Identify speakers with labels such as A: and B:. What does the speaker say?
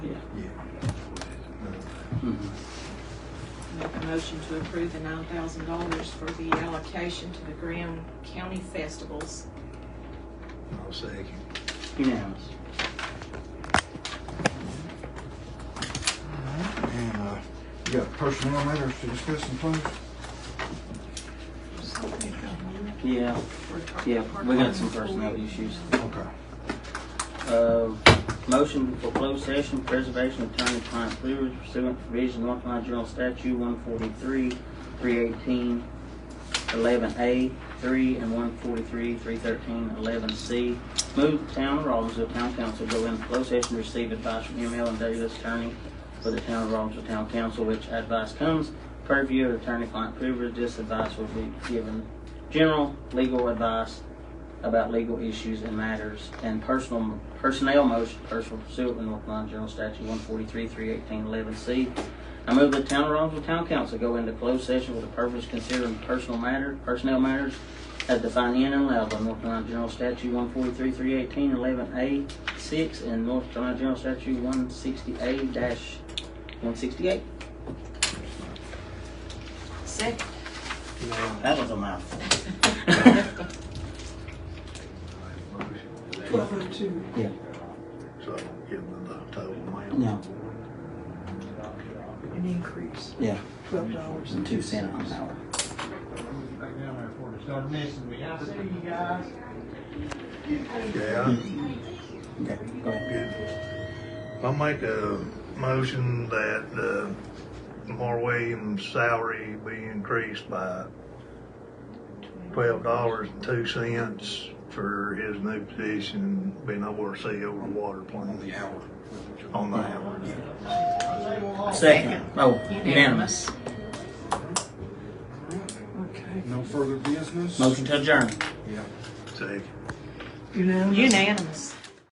A: Hmm.
B: motion to approve the nine thousand dollars for the allocation to the Graham County Festivals.
C: I'll second.
A: Unanimous.
D: Alright, And, uh, you got personnel matters to discuss and close?
A: Yeah, yeah, we got some personnel issues.
D: Okay.
A: Uh, motion for closed session, preservation of attorney-client privilege pursuant to provision of North Carolina General Statute one forty-three, three eighteen, eleven A, three, and one forty-three, three thirteen, eleven C. Move the town of Robbinsville Town Council go into closed session, receive advice from email and Davis attorney for the town of Robbinsville Town Council, which advice comes purview of attorney-client privilege. This advice will be given general legal advice about legal issues and matters and personal personnel motion personal pursuit of North Carolina General Statute one forty three three eighteen eleven C. I move the town of Robbinsville Town Council go into closed session with the purpose of considering personal matter personnel matters as defined in and allowed by North Carolina General Statute one forty three three eighteen eleven A six and North Carolina General Statute one sixty eight dash one sixty eight.
B: Second.
A: That was a mouthful.
C: Twelve
B: oh two.
A: Yeah.
C: So I don't give them the total amount.
A: No.
B: An increase,
A: Yeah.
B: twelve dollars
A: Two cents an hour.
E: back down there for us. Start messing with me. I see you guys.
C: Yeah,
A: Okay. Go ahead.
C: good. I'll make a motion that, uh, Mar Williams' salary be increased by twelve dollars and two cents for his new position, being overseer over the water plant. On the hour. On the hour.
A: Second. Oh, unanimous.
B: Okay.
D: No further business?
A: Motion to adjourn.
D: Yeah.
C: Second.
B: Unanimous.